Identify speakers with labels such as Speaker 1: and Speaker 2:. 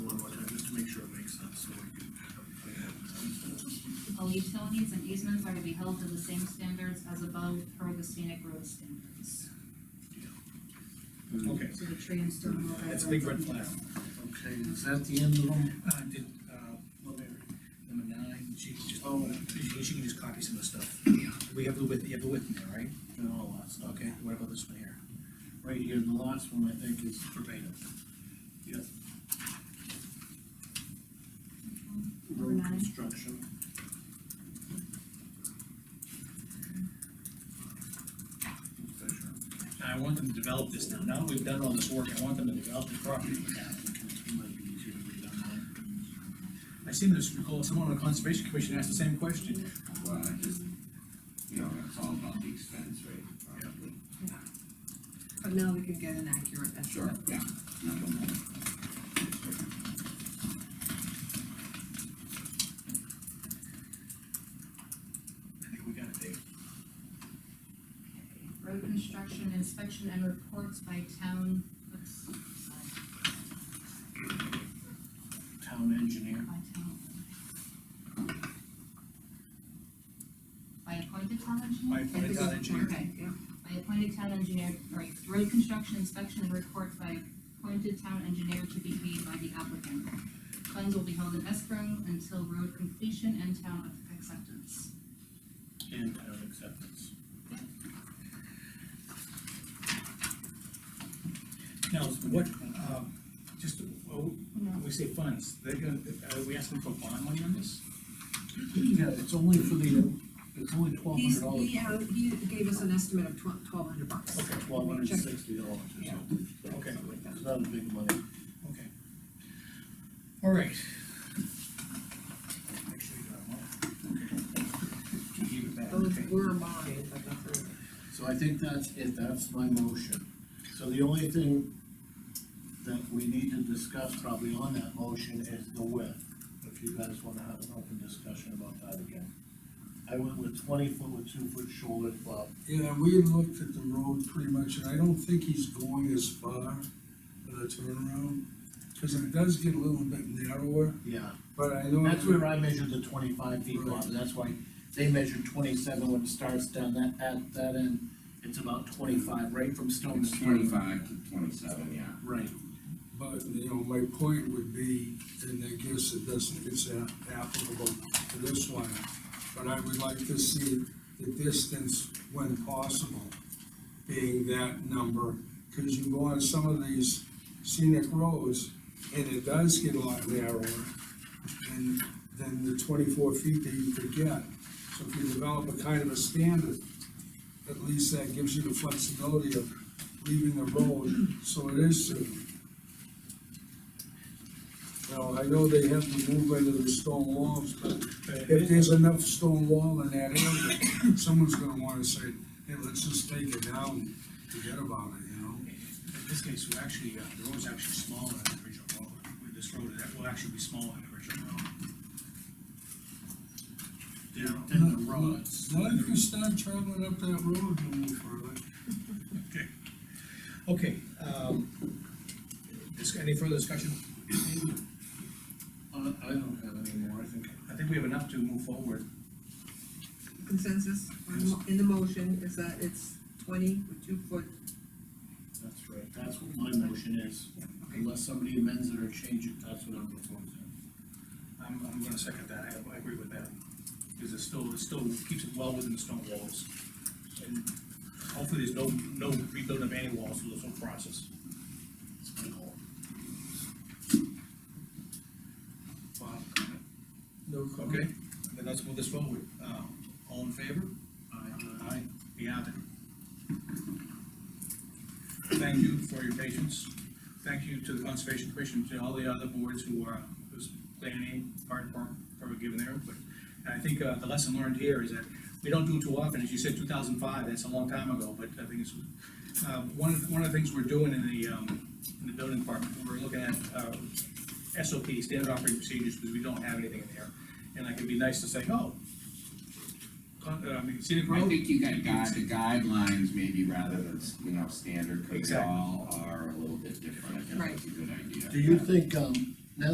Speaker 1: utilities and easements are to be held to the same standards as above per the scenic road standards.
Speaker 2: Okay,
Speaker 1: So the tree and stone wall
Speaker 2: that's a big red
Speaker 1: guidelines are-
Speaker 2: flag.
Speaker 3: Okay, is that the end of them?
Speaker 2: Uh, did, uh, number number nine, she can just,
Speaker 3: Oh.
Speaker 2: she she can just copy some of the stuff. Yeah. We have the width, you have the width in there, right?
Speaker 3: No, that's not,
Speaker 2: Okay, what about this one here?
Speaker 3: right here, the last one, I think, is verbatim. Yep. Road
Speaker 1: Number nine.
Speaker 3: construction.
Speaker 1: Mm-hmm.
Speaker 2: I want them to develop this now, now that we've done all this work, I want them to develop the property now.
Speaker 3: It might be easier to read online.
Speaker 2: I seem to recall someone on the conservation commission asked the same question.
Speaker 4: Well, I just, you know, it's all about the expense, right? Probably.
Speaker 5: But now we can get an accurate estimate.
Speaker 4: Yeah. Not the moment.
Speaker 2: I think we got it, Dave.
Speaker 1: Road construction inspection and reports by town, oops, sorry,
Speaker 3: Town engineer.
Speaker 1: by town. By appointed town engineer?
Speaker 2: By appointed town engineer.
Speaker 1: Okay.
Speaker 5: Yeah.
Speaker 1: by appointed town engineer, or road construction inspection and report by appointed town engineer to be paid by the applicant. Funds will be held in escrow until road completion and town acceptance.
Speaker 3: And town acceptance.
Speaker 2: Now, what, um, just, well, we say funds, they're gonna, are we asking for bond money on this?
Speaker 3: Yeah, it's only for the, it's only twelve
Speaker 5: He's,
Speaker 3: hundred dollars.
Speaker 5: he, uh, he gave us an estimate of twelve, twelve hundred bucks.
Speaker 2: Okay,
Speaker 3: Twelve hundred and sixty dollars,
Speaker 5: Yeah.
Speaker 2: Okay.
Speaker 5: Something like that.
Speaker 3: it's not a big money.
Speaker 2: Okay. All right. Actually, uh, well, Give it back,
Speaker 5: Those
Speaker 2: okay.
Speaker 5: were mine, but that's all.
Speaker 3: So I think that's it, that's my motion. So the only thing that we need to discuss probably on that motion is the width, if you guys wanna have an open discussion about that again. I went with twenty foot with two foot shoulder club,
Speaker 6: Yeah, we looked at the road pretty much, and I don't think he's going as far for the turnaround, because it does get a little bit narrower,
Speaker 3: yeah.
Speaker 6: but I know.
Speaker 3: That's where I measured the twenty-five feet Bob, and that's why they measured twenty-seven when it starts down that, at that end. It's about twenty-five, right from Stone
Speaker 4: It's
Speaker 3: to
Speaker 4: twenty-five to twenty-seven, yeah.
Speaker 3: Right,
Speaker 6: But, you know, my point would be, and I guess it doesn't, it's a- applicable to this one, but I would like to see the distance when possible being that number, because you go on some of these scenic roads, and it does get a lot narrower than, than the twenty-four feet that you could get. So if you develop a kind of a standard, at least that gives you the flexibility of leaving the road, so it is suitable. Now, I know they have to move into the stone walls, but if there's enough stone wall in that area, someone's gonna wanna say, hey, let's just take it down, and forget about it, you know?
Speaker 2: In this case, we're actually, uh, the road's actually smaller than the original road. This road that will actually be smaller than the original road.
Speaker 3: then, then the roads.
Speaker 6: Not if you start traveling up that road no more further.
Speaker 2: Okay, um, dis- any further discussion?
Speaker 3: Uh, I don't have any more, I think
Speaker 2: I think we have enough to move forward.
Speaker 5: Consensus on the mo- in the motion is that it's twenty with two foot.
Speaker 3: that's right, that's what my motion is. Unless somebody amends it or changes it, that's what I'm proposing.
Speaker 2: I'm, I'm gonna second that, I, I agree with that. Because it still, it still keeps it well within the stone walls. And hopefully there's no, no rebuilding of any walls through this whole process.
Speaker 3: It's my goal.
Speaker 2: Bob,
Speaker 6: No comment.
Speaker 2: okay, then let's move this forward. Uh, all in favor?
Speaker 3: I,
Speaker 2: Aye, we have it. Thank you for your patience. Thank you to the Conservation Commission, to all the other boards who are, who's planning, part of, part of giving their input. And I think, uh, the lesson learned here is that we don't do it too often, as you said, two thousand five, that's a long time ago, but I think it's, uh, one, of- one of the things we're doing in the, um, in the building department, we're looking at, uh, SOP, standard operating procedures, because we don't have anything in there. And like, it'd be nice to say, oh, con, uh, I mean, scenic road,
Speaker 4: I think you got guide, the guidelines maybe rather than, you know, standard, because they
Speaker 2: Exactly.
Speaker 4: all are a little bit different. I think
Speaker 5: Right.
Speaker 4: that's a good idea.
Speaker 3: Do you think, um,